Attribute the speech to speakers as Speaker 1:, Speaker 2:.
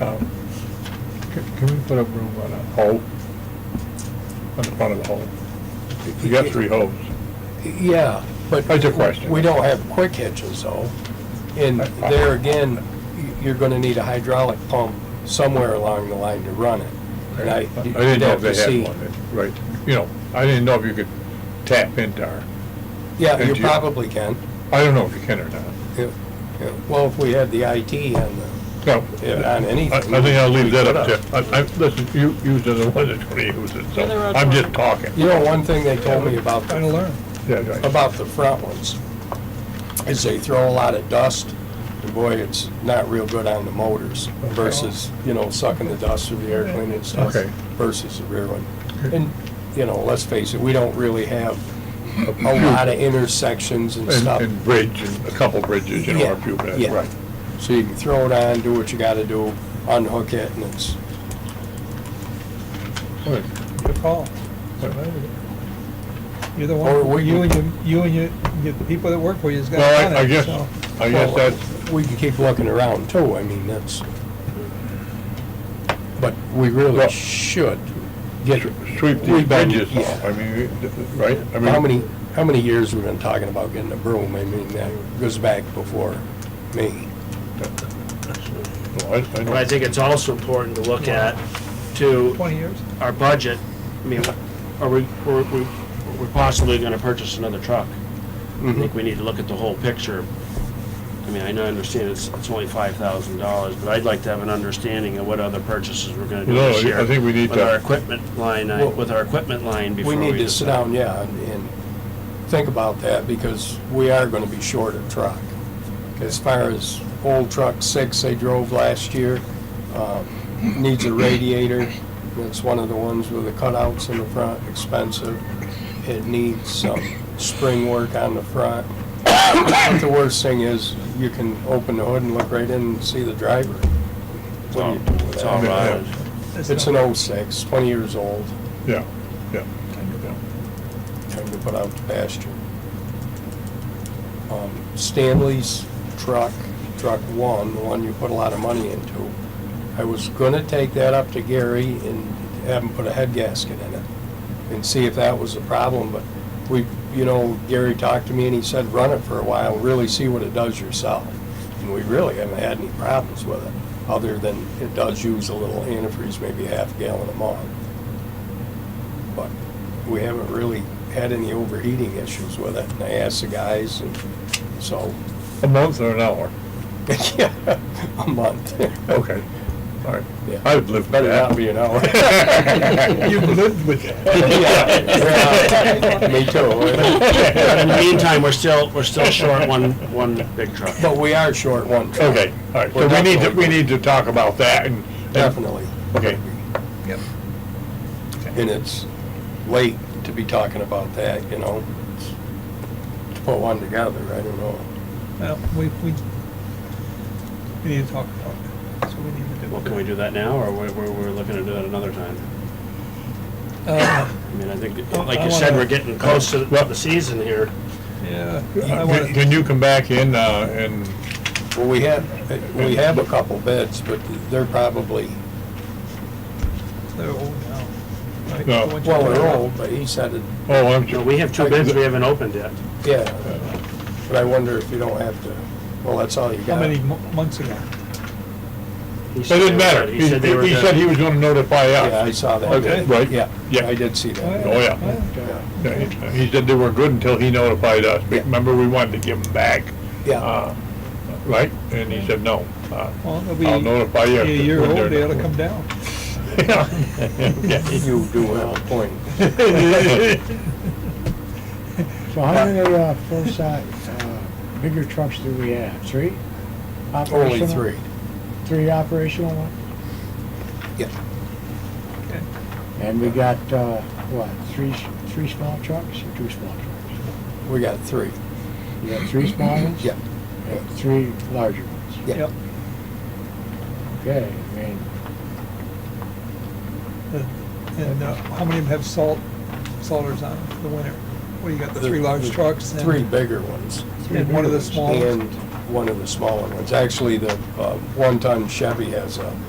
Speaker 1: Um, c- Can we put a room on a hole? On the front of the hole? You got three holes.
Speaker 2: Yeah, but.
Speaker 1: That's a question.
Speaker 2: We don't have quick hitches though. And there again, you're gonna need a hydraulic pump somewhere along the line to run it. And I,
Speaker 1: I
Speaker 2: you'd
Speaker 1: didn't know
Speaker 2: have
Speaker 1: if
Speaker 2: to
Speaker 1: they
Speaker 2: see.
Speaker 1: had one, that- right, you know, I didn't know if you could tap into our,
Speaker 2: Yeah, you
Speaker 1: Did you?
Speaker 2: probably can.
Speaker 1: I don't know if you can or not.
Speaker 2: Yeah, yeah. Well, if we had the IT on the,
Speaker 1: No,
Speaker 2: yeah, on
Speaker 1: I, I
Speaker 2: anything. uh,
Speaker 1: think I'll leave that up to, I, I, listen, you, you said the one that's gonna use it, so I'm just talking.
Speaker 2: You know, one thing they told me about the
Speaker 1: learn. Yeah, right.
Speaker 2: about the front ones is they throw a lot of dust, and boy, it's not real good on the motors versus, you know, sucking the dust through the air cleaner and stuff
Speaker 1: Okay.
Speaker 2: versus the rear one. And, you know, let's face it, we don't really have a lot of intersections and
Speaker 1: And,
Speaker 2: stuff.
Speaker 1: and bridge, and a couple bridges, you know, a few,
Speaker 2: Yeah,
Speaker 1: bridges,
Speaker 2: yeah.
Speaker 1: right.
Speaker 2: So you can throw it on, do what you gotta do, unhook it, and it's,
Speaker 1: Good.
Speaker 3: Good call. You're the
Speaker 2: Or
Speaker 3: one,
Speaker 2: we-
Speaker 3: you and your, you and your, your people that work for you's got
Speaker 1: Well, I, I
Speaker 3: it
Speaker 1: guess,
Speaker 3: on
Speaker 1: I guess that's,
Speaker 2: we can keep looking around too, I mean, that's, but we really
Speaker 1: Well-
Speaker 2: should get
Speaker 1: sweep these
Speaker 2: We've been-
Speaker 1: bridges
Speaker 2: yeah.
Speaker 1: off, I mean, we- right? I mean,
Speaker 2: How many, how many years we've been talking about getting a broom? I mean, that goes back before me.
Speaker 1: Well, I- I
Speaker 4: But I
Speaker 1: don't-
Speaker 4: think it's also important to look at, to
Speaker 3: Twenty years?
Speaker 4: our budget, I mean, are we, we're, we- we're possibly gonna purchase another truck. I
Speaker 2: Mm-hmm.
Speaker 1: Mm-hmm.
Speaker 4: think we need to look at the whole picture. I mean, I know, I understand it's, it's only five thousand dollars, but I'd like to have an understanding of what other purchases we're gonna do
Speaker 1: No,
Speaker 4: this year.
Speaker 1: I think we need
Speaker 4: With
Speaker 1: to-
Speaker 4: our equipment line, I-
Speaker 2: Well,
Speaker 4: with our equipment line before
Speaker 2: We
Speaker 4: we.
Speaker 2: need to sit
Speaker 4: decide.
Speaker 2: down, yeah, and- and think about that because we are going to be short of truck. As far as old truck six they drove last year, um, needs a radiator. It's one of the ones with the cutouts in the front, expensive. It needs some spring work on the front. But the worst thing is you can open the hood and look right in and see the driver. What do you do with
Speaker 4: It's all
Speaker 2: that?
Speaker 4: right.
Speaker 2: It's an old six, 20 years old,
Speaker 1: Yeah, yeah. yeah.
Speaker 2: trying to put out to pasture. Um, Stanley's truck, truck one, the one you put a lot of money into, I was gonna take that up to Gary and have him put a head gasket in it and see if that was a problem, but we, you know, Gary talked to me and he said, run it for a while, really see what it does yourself. And we really haven't had any problems with it, other than it does use a little antifreeze, maybe a half gallon a month. But we haven't really had any overheating issues with it. And I asked the guys, and so,
Speaker 1: A month or an hour?
Speaker 2: yeah, a month.
Speaker 1: Okay, all right.
Speaker 2: Yeah.
Speaker 1: I would live by
Speaker 2: Better
Speaker 1: that.
Speaker 2: not be an hour.
Speaker 1: You lived with
Speaker 2: Yeah, yeah, Me
Speaker 4: In the
Speaker 2: too.
Speaker 4: meantime, we're still, we're still short one, one big truck.
Speaker 2: But we are short one truck.
Speaker 1: Okay, all right, so
Speaker 2: We're
Speaker 1: we need to,
Speaker 2: definitely-
Speaker 1: we need to talk about that and. and-
Speaker 2: Definitely.
Speaker 1: Okay,
Speaker 2: And it's late to be talking about that, you know? To put one together, I don't know.
Speaker 3: Well, we, we, we need to talk about it. That's what we need to do.
Speaker 4: Well, can we do that now, or we're, we're, we're looking to do it another time?
Speaker 3: Uh,
Speaker 4: I mean, I think,
Speaker 3: Oh,
Speaker 4: like
Speaker 3: I
Speaker 4: you said,
Speaker 3: wanna-
Speaker 4: we're getting close to the season here.
Speaker 3: Yeah. I
Speaker 1: Uh,
Speaker 3: wanna-
Speaker 1: can can you come back in, uh, and,
Speaker 2: Well, we have, we have a couple bids, but they're probably,
Speaker 3: They're old now. right?
Speaker 1: No.
Speaker 3: The ones you
Speaker 2: well,
Speaker 3: put
Speaker 2: they're
Speaker 3: out.
Speaker 2: old, but he said it,
Speaker 1: oh, I'm
Speaker 4: No,
Speaker 1: sure.
Speaker 4: we have two bids we haven't opened yet.
Speaker 2: yeah.
Speaker 1: Uh,
Speaker 2: But I wonder if you don't have to, well, that's all you
Speaker 3: How
Speaker 2: got.
Speaker 3: many mo- months ago?
Speaker 4: It
Speaker 1: It didn't matter, he, he said he was gonna notify
Speaker 2: Yeah, I
Speaker 1: us.
Speaker 2: saw that.
Speaker 1: Oh, Okay, right.
Speaker 2: Yeah,
Speaker 1: Yeah.
Speaker 2: I did see that.
Speaker 1: Oh, yeah. Yeah, He he said they were good until he notified us,
Speaker 2: Yeah.
Speaker 1: remember, we wanted to give them back,
Speaker 2: Yeah,
Speaker 1: uh, right? And he said, no. uh,
Speaker 3: Well, they'll be.
Speaker 1: I'll notify you
Speaker 3: be
Speaker 1: if
Speaker 3: A year
Speaker 1: when they're
Speaker 3: old, they ought to
Speaker 1: not-
Speaker 3: come down.
Speaker 1: Yeah.
Speaker 2: you do have a point.
Speaker 5: So how many uh, full-size, uh, bigger trucks do we have? Three?
Speaker 2: Only
Speaker 5: Operational?
Speaker 2: three.
Speaker 5: Three operational ones?
Speaker 2: Yeah.
Speaker 3: Okay.
Speaker 5: And we got, uh, what, three, s- three small trucks or two small trucks?
Speaker 2: We got three.
Speaker 5: We got three small ones?
Speaker 2: Yeah.
Speaker 5: And three larger ones?
Speaker 2: Yeah.
Speaker 3: Yep.
Speaker 5: Okay, I mean,
Speaker 3: And uh, how many of them have salt, salters on them for the winter? Well, you got the three large
Speaker 2: The-
Speaker 3: trucks and.
Speaker 2: Three bigger ones.
Speaker 3: And one of the small ones.
Speaker 2: And one of the smaller ones. Actually, the uh, one-ton Chevy has a